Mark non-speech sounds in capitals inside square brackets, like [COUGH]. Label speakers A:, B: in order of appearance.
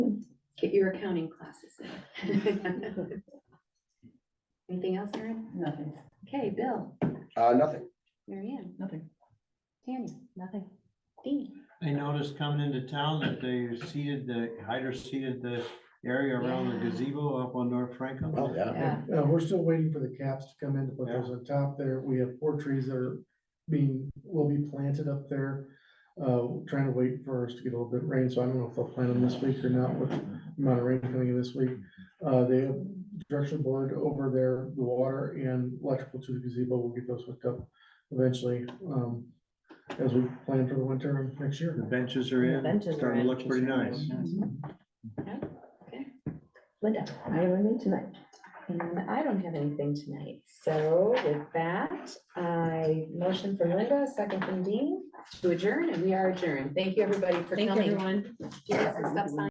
A: Get your accounting classes in. [LAUGHS] Anything else, Erin?
B: Nothing.
A: Okay, Bill,
C: Uh, nothing.
A: Mary Ann,
B: Nothing.
A: Tanya,
B: Nothing.
A: Dean.
D: I noticed coming into town that they seeded the, hydro seeded the area around the
A: Yeah.
D: gazebo up on North Franklin.
C: Oh, yeah.
A: Yeah.
E: Uh, we're still waiting for the caps to come in to put those on top there. We have four trees that are being, will be planted up there. Uh, trying to wait for us to get a little bit of rain, so I don't know if they'll plant them this week or not, with the amount of rain coming in this week. Uh, they have direction board over there, the water and electrical to the gazebo, we'll get those hooked up eventually, um, as we plan for the winter and next
D: The
E: year.
D: benches are in,
B: Benches are
D: starting to look
B: in.
D: pretty nice.
B: Mm-hmm.
A: Okay.
F: Linda, I have anything tonight? And I don't have anything tonight, so with that, I motion from Linda, second from Dean.
A: To adjourn, and we are adjourned.
F: Thank you, everybody, for
B: Thank you,
F: coming.
B: everyone.
A: Do you have some stuff signed?